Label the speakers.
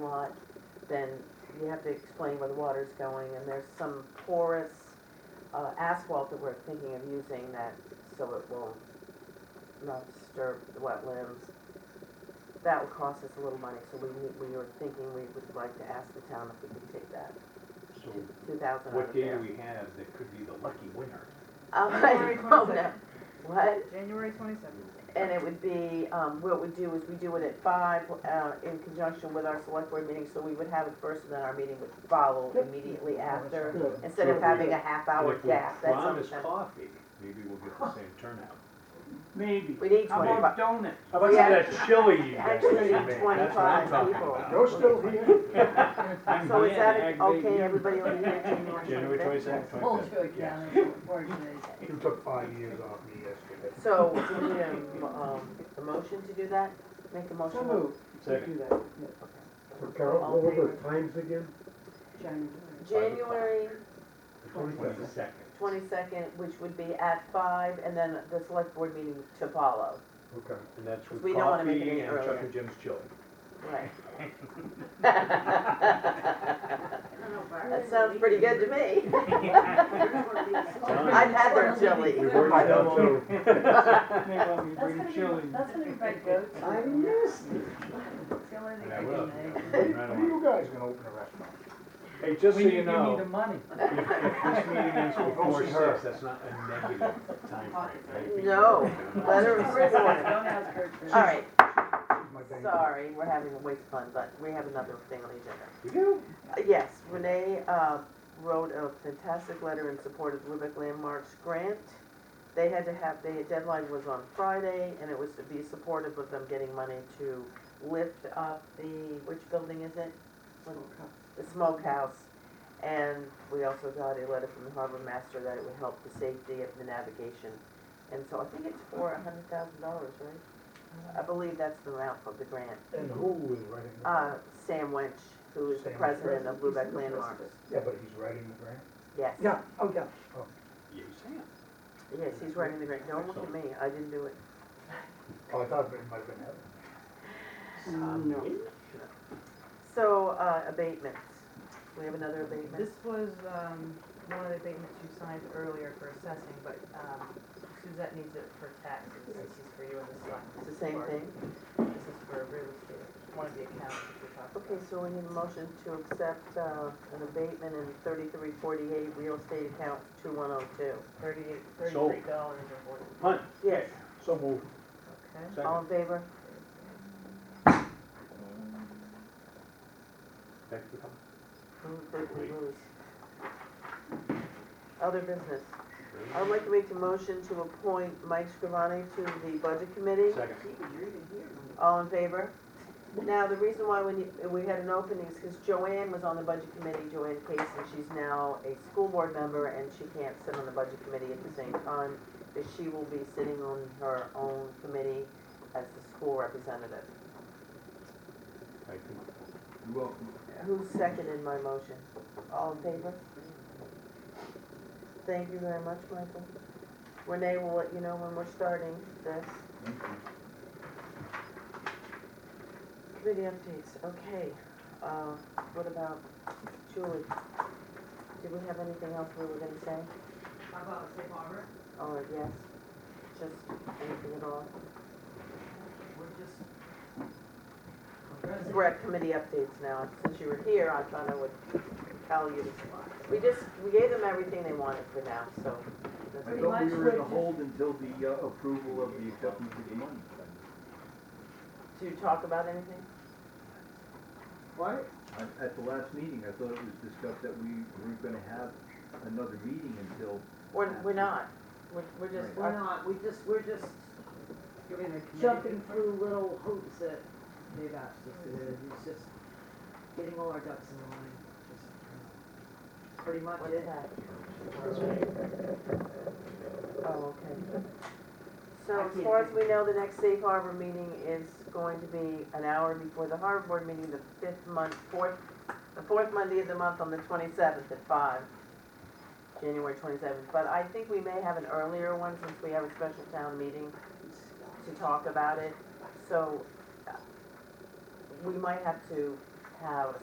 Speaker 1: lot, then you have to explain where the water's going, and there's some porous uh, asphalt that we're thinking of using that, so it will not disturb the wetlands. That would cost us a little money, so we, need- we were thinking we would like to ask the town if we could take that,
Speaker 2: So
Speaker 1: two thousand out
Speaker 2: Hmm. what
Speaker 1: of
Speaker 2: day do
Speaker 1: there.
Speaker 2: we have that could be the lucky winner?
Speaker 1: Um, I
Speaker 3: January
Speaker 1: don't know.
Speaker 3: 22nd.
Speaker 1: What?
Speaker 3: January twenty-seventh.
Speaker 1: And it would be, um, what we do is we do it at five, uh, in conjunction with our select board meeting, so we would have it first and then our meeting would follow immediately after,
Speaker 4: Good.
Speaker 1: instead of having a half hour
Speaker 2: And
Speaker 1: gap, that's
Speaker 2: If we promise
Speaker 1: something.
Speaker 2: coffee, maybe we'll get the same turnout.
Speaker 5: Maybe.
Speaker 1: We need
Speaker 5: How
Speaker 1: twenty-five,
Speaker 5: about donuts?
Speaker 2: How about
Speaker 1: Yeah.
Speaker 2: some of that chili you guys
Speaker 1: Actually,
Speaker 2: made? That's what
Speaker 1: 25
Speaker 2: I'm talking
Speaker 1: people.
Speaker 2: about.
Speaker 4: You're still here?
Speaker 5: I'm
Speaker 1: so is that,
Speaker 5: glad to
Speaker 1: it?
Speaker 5: aggravate
Speaker 1: okay,
Speaker 5: you.
Speaker 1: everybody over here, January
Speaker 2: January
Speaker 1: twenty-fifth?
Speaker 2: twenty-second,
Speaker 6: Hold
Speaker 2: twenty-fifth.
Speaker 6: you accountable for today's.
Speaker 4: You took five years off me yesterday.
Speaker 1: So, do we need a, m- um, a motion to do that? Make a motion?
Speaker 6: So moved,
Speaker 2: Second,
Speaker 4: So Carol, what were the times again?
Speaker 6: January.
Speaker 1: January
Speaker 2: twenty-second.
Speaker 1: twenty-second, which would be at five, and then the select board meeting to follow,
Speaker 4: Okay.
Speaker 2: And that's with
Speaker 1: We don't wanna make it
Speaker 2: coffee
Speaker 1: any
Speaker 2: and Chuck
Speaker 1: earlier.
Speaker 2: and Jim's chili.
Speaker 1: right?
Speaker 3: That
Speaker 1: That sounds pretty good to me.
Speaker 2: Sounds-
Speaker 1: I've had their chili.
Speaker 2: We've already done two.
Speaker 5: They want me to
Speaker 6: That's
Speaker 5: bring
Speaker 6: gonna
Speaker 5: chili.
Speaker 6: be, that's gonna be my go-to.
Speaker 4: I missed
Speaker 6: It's the only
Speaker 2: And
Speaker 6: thing
Speaker 2: I
Speaker 6: I
Speaker 2: will,
Speaker 6: can make.
Speaker 2: yeah, right
Speaker 4: When
Speaker 2: on.
Speaker 4: are you guys gonna open a restaurant?
Speaker 2: Hey, just so
Speaker 5: When
Speaker 2: you
Speaker 5: you give me the
Speaker 2: know,
Speaker 5: money.
Speaker 2: if, if this meeting ends before
Speaker 4: Don't see her.
Speaker 2: six, that's not a negative timeframe.
Speaker 1: No, letter of
Speaker 6: Don't
Speaker 1: support.
Speaker 6: ask her to.
Speaker 1: All right,
Speaker 4: She's my bank.
Speaker 1: sorry, we're having a waste fund, but we have another thing on the agenda.
Speaker 2: You do?
Speaker 1: Uh, Yes, Renee uh, wrote a fantastic letter in support of Lubec Landmarks grant. They had to have, the deadline was on Friday, and it was to be supportive of them getting money to lift up the, which building is it? The smokehouse. And we also got a letter from the harbor master that it would help the safety of the navigation. And so I think it's for a hundred thousand dollars, right? I believe that's the amount of the grant.
Speaker 4: And who is writing the
Speaker 1: Uh,
Speaker 4: grant?
Speaker 1: Sam Wench, who is the
Speaker 4: Sam Wench.
Speaker 1: president of Lubec Landmarks.
Speaker 4: Yeah, but he's writing the grant?
Speaker 1: Yes.
Speaker 4: oh, yeah.
Speaker 2: You Sam.
Speaker 1: Yes, he's writing the grant. Don't look at me. I didn't do it.
Speaker 4: Oh, I thought it might have been Heather. Mm,
Speaker 1: Um, So, uh, abatements. We have another abatement.
Speaker 3: This was, um, one of the abatements you signed earlier for assessing, but, um, Suzette needs it for taxes, this is for you and the select.
Speaker 1: It's the same
Speaker 3: board.
Speaker 1: thing.
Speaker 3: This is for real estate, one of the accounts that we talked about.
Speaker 1: Okay, so we need a motion to accept, uh, an abatement in thirty-three forty-eight real estate account two one oh two.
Speaker 3: Thirty-eight,
Speaker 2: Sold.
Speaker 3: thirty-three dollars and forty.
Speaker 2: Hunt,
Speaker 1: Yes,
Speaker 2: so moved.
Speaker 3: Okay.
Speaker 1: all
Speaker 2: Second,
Speaker 1: in favor?
Speaker 2: thank you.
Speaker 1: Move that we lose. Other business. I would like to make a motion to appoint Mike Scrivani to the budget committee.
Speaker 2: Second.
Speaker 1: All in favor? Now, the reason why we, need- we had an opening is because Joanne was on the budget committee, Joanne Case, and she's now a school board member, and she can't sit on the budget committee at the same time, but she will be sitting on her own committee as the school representative.
Speaker 2: I think-
Speaker 1: Who seconded my motion? All in favor? Thank you very much, Michael. Renee will let you know when we're starting this. Committee updates, okay. Uh, what about Julie? Did we have anything else we were gonna say?
Speaker 7: How about safe harbor?
Speaker 1: Or yes, just anything at all?
Speaker 7: We're just.
Speaker 1: We're at committee updates now. Since you were here, I thought I would tell you. We just, we gave them everything they wanted for now, so. that's
Speaker 6: Pretty
Speaker 1: it.
Speaker 6: much we're just-
Speaker 8: until the uh, approval of the acceptance of the money.
Speaker 1: To talk about anything?
Speaker 8: What? At the last meeting, I thought it was discussed that we weren't gonna have another meeting until.
Speaker 1: We're, we're not. We're, we're just,
Speaker 7: We're not, we just, we're just giving the committee.
Speaker 6: Jumping through little hoops that they've asked us to do, it's just getting all our ducks in a line, just uh, pretty much
Speaker 1: what's
Speaker 6: it.
Speaker 1: that? Oh, okay. So
Speaker 6: I
Speaker 1: as
Speaker 6: can't
Speaker 1: far as
Speaker 6: think.
Speaker 1: we know, the next safe harbor meeting is going to be an hour before the harbor board meeting, the fifth month, fourth, the fourth Monday of the month on the twenty-seventh at five. January twenty-seventh, but I think we may have an earlier one since we have a special town meeting to talk about it. So uh, we might have to have